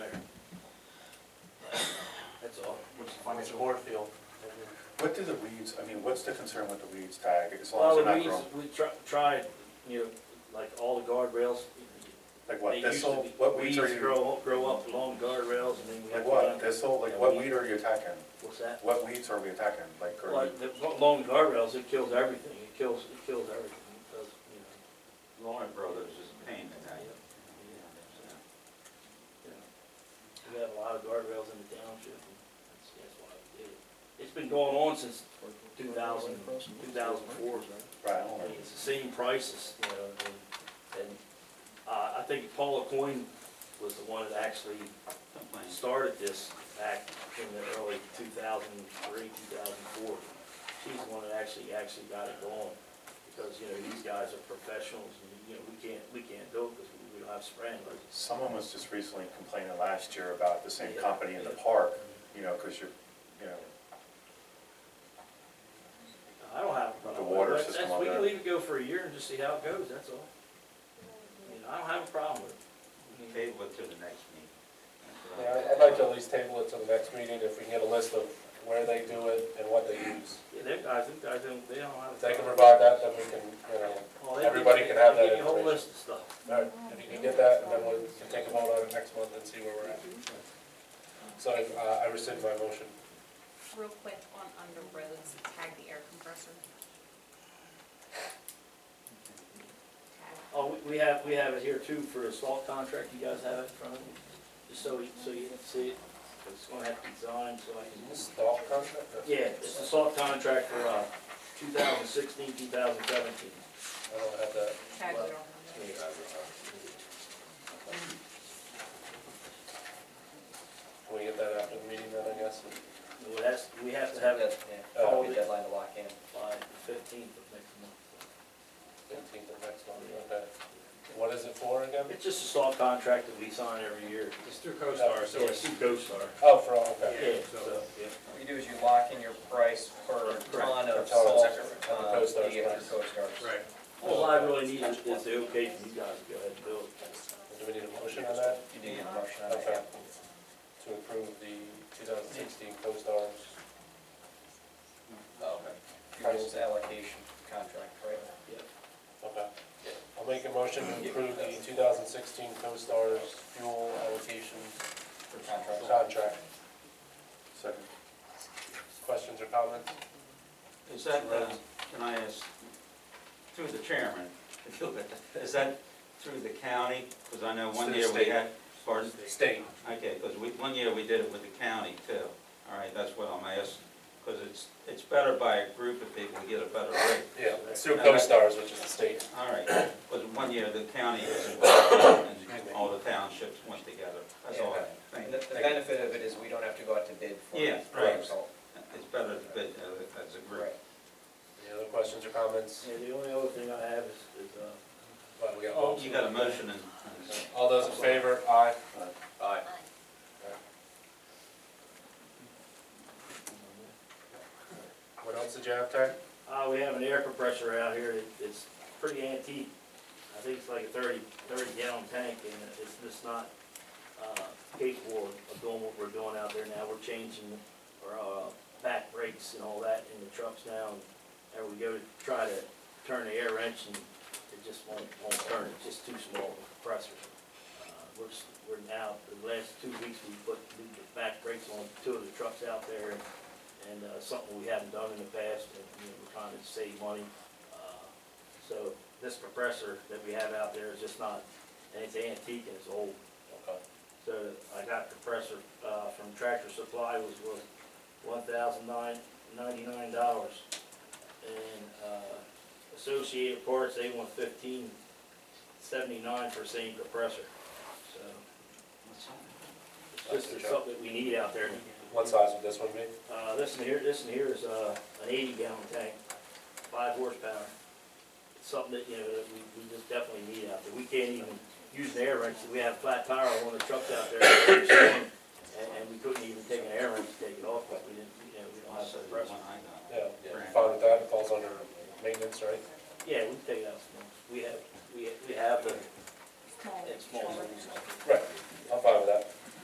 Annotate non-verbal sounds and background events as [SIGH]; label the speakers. Speaker 1: Mr. Hoarfield. and then-
Speaker 2: What do the weeds, I mean, what's the concern with the weeds tag, as long as
Speaker 1: Well,
Speaker 2: they're
Speaker 1: the
Speaker 2: not
Speaker 1: weeds,
Speaker 2: grown?
Speaker 1: we tr- tried, you know, like all the guardrails.
Speaker 2: Like what,
Speaker 1: they used to
Speaker 2: thistle,
Speaker 1: be-
Speaker 2: what weeds are you,
Speaker 1: grow, grow up along guardrails and then we have.
Speaker 2: like
Speaker 1: to
Speaker 2: what,
Speaker 1: cut 'em.
Speaker 2: thistle,
Speaker 1: Yeah,
Speaker 2: like what
Speaker 1: weed.
Speaker 2: weed are you attacking?
Speaker 1: What's that?
Speaker 2: What weeds are we attacking, like, are
Speaker 1: Like,
Speaker 2: you-
Speaker 1: the, along guardrails, it kills everything. It kills, it kills everything. It does, you
Speaker 3: Lauren Brothers is a pain in
Speaker 1: know.
Speaker 3: that.
Speaker 1: yeah, so, you know. We have a lot of guardrails in the township and that's, that's why we did it. It's been going on since 2000 2004.
Speaker 2: right, I don't
Speaker 1: I
Speaker 2: know.
Speaker 1: mean, it's the same prices, you know, and, and, uh, I think Paula Coyne was the one that actually
Speaker 3: Complain.
Speaker 1: started this back in the early two thousand three, two thousand four. She's the one that actually, actually got it going, because, you know, these guys are professionals, and, you know, we can't, we can't do it, because we don't have sprinklers.
Speaker 2: Someone was just recently complaining last year about the same
Speaker 1: Yeah,
Speaker 2: company in the
Speaker 1: yeah.
Speaker 2: park, you know, because you're, you know,
Speaker 1: I don't have. a problem
Speaker 2: The water
Speaker 1: with it.
Speaker 2: system
Speaker 1: That's-
Speaker 2: on
Speaker 1: We can
Speaker 2: that.
Speaker 1: leave it go for a year and just see how it goes, that's all. I mean, I don't have a problem with it.
Speaker 3: Table it to the next meeting. That's what I-
Speaker 4: Yeah, I'd like to at least table it till the next meeting if we can get a list of where they do it and what they use.
Speaker 1: Yeah, them guys, them guys, don't- they don't have. a
Speaker 4: If they can
Speaker 1: problem.
Speaker 4: provide that, then we can, you know,
Speaker 1: Well, they-
Speaker 4: Everybody
Speaker 1: they-
Speaker 4: can have
Speaker 1: they
Speaker 4: that
Speaker 1: give you a whole
Speaker 4: information.
Speaker 1: list of stuff.
Speaker 4: all right, if you can get that, and then we can take a vote on it next month and see where we're at. So I, uh, I rescind my motion.
Speaker 5: Real quick on under roads, tag the air compressor. Tag.
Speaker 1: Oh, we- we have, we have it here too for a salt contract, you guys have it in front of you? Just so, you- so you can see it, it's gonna have to be signed, so I can.
Speaker 4: This dog contract?
Speaker 1: Yeah, it's a salt contract for, uh, two thousand sixteen, two thousand seventeen.
Speaker 4: I don't have that.
Speaker 5: Tag, we don't have
Speaker 4: Yeah, I
Speaker 5: that.
Speaker 4: don't have it. Can we get that after the meeting then, I guess?
Speaker 1: Well, that's, we have to have it
Speaker 4: Uh,
Speaker 6: That'll be a deadline to lock in.
Speaker 1: by the fifteenth of next month.
Speaker 4: Fifteenth of next month, okay. What is it for again?
Speaker 1: It's just a salt contract that we sign every year.
Speaker 7: It's through CoStar, so
Speaker 1: Yeah,
Speaker 7: it's,
Speaker 1: it's CoStar.
Speaker 4: Oh, for all, okay.
Speaker 1: Yeah, so, yeah.
Speaker 6: What you do is you lock in your price per ton
Speaker 4: Per ton,
Speaker 6: of salt,
Speaker 4: exactly.
Speaker 6: uh,
Speaker 4: Coast Guard's
Speaker 6: you get
Speaker 4: price.
Speaker 6: through Coast Guard's.
Speaker 7: right.
Speaker 1: All I really need is, is the okay from you guys to go ahead and do it.
Speaker 4: Do we need a motion on that
Speaker 6: You do get a motion on
Speaker 4: Mm-hmm. Okay.
Speaker 6: that.
Speaker 4: to approve the 2016 co-stars?
Speaker 3: Oh,
Speaker 6: Okay. Fuels allocation contract, right?
Speaker 4: Okay. I'll make a motion to approve the 2016 co-stars fuel allocation
Speaker 6: For contracts.
Speaker 4: contract.
Speaker 2: second,
Speaker 4: Questions or comments?
Speaker 3: Is that, uh, can I ask, through the chairman, [LAUGHS] if you'll get that, is that through the county? Because I know one
Speaker 4: Through the
Speaker 3: year we
Speaker 4: state.
Speaker 3: had, pardon?
Speaker 4: State.
Speaker 3: Okay, because we, one year we did it with the county too. All right, that's what I'm asking, because it's, it's better by a group of people, we get a better rate.
Speaker 4: Yeah, it's through co-stars, which is the state.
Speaker 3: All right, because one year the county was involved and all the townships went together. That's all I
Speaker 6: And
Speaker 3: think.
Speaker 6: the, the benefit of it is we don't have to go out to bid for.
Speaker 3: Yeah,
Speaker 6: for
Speaker 3: right.
Speaker 6: salt.
Speaker 3: It's better to bid uh, as a group.
Speaker 6: Right.
Speaker 4: Any other questions or comments?
Speaker 1: Yeah, the only other thing I have is, is, uh,
Speaker 4: Well, we got
Speaker 1: Oh.
Speaker 4: votes.
Speaker 3: You got a motion and. and-
Speaker 4: All those in favor, aye?
Speaker 2: Aye.
Speaker 4: Aye. What else did you have, Ty?
Speaker 1: Uh, we have an air compressor out here, It- it's pretty antique. I think it's like a 30 30 gallon tank, and it's just not, uh, capable of doing what we're doing out there now. We're changing our, uh, back brakes and all that in the trucks now, and we go to try to turn the air wrench, and it just won't, won't turn, it's just too small of a compressor. Uh, We're, s- we're now, the last two weeks, we put new back brakes on two of the trucks out there, and and uh, something we haven't done in the past, and, you know, we're trying to save money. Uh, So this compressor that we have out there is just not, and it's antique and it's old.
Speaker 4: Okay.
Speaker 1: So I got compressor uh, from Tractor Supply, was worth one thousand nine, ninety-nine dollars. And uh, Associated Parts, they want fifteen seventy-nine for same compressor. So it's just something that we need out there.
Speaker 4: What size would this one be?
Speaker 1: Uh, this one here, this one here is, uh, an eighty gallon tank, five horsepower. It's something that, you know, that we, we just definitely need out there. We can't even use an air wrench, we have flat tire on the trucks out there.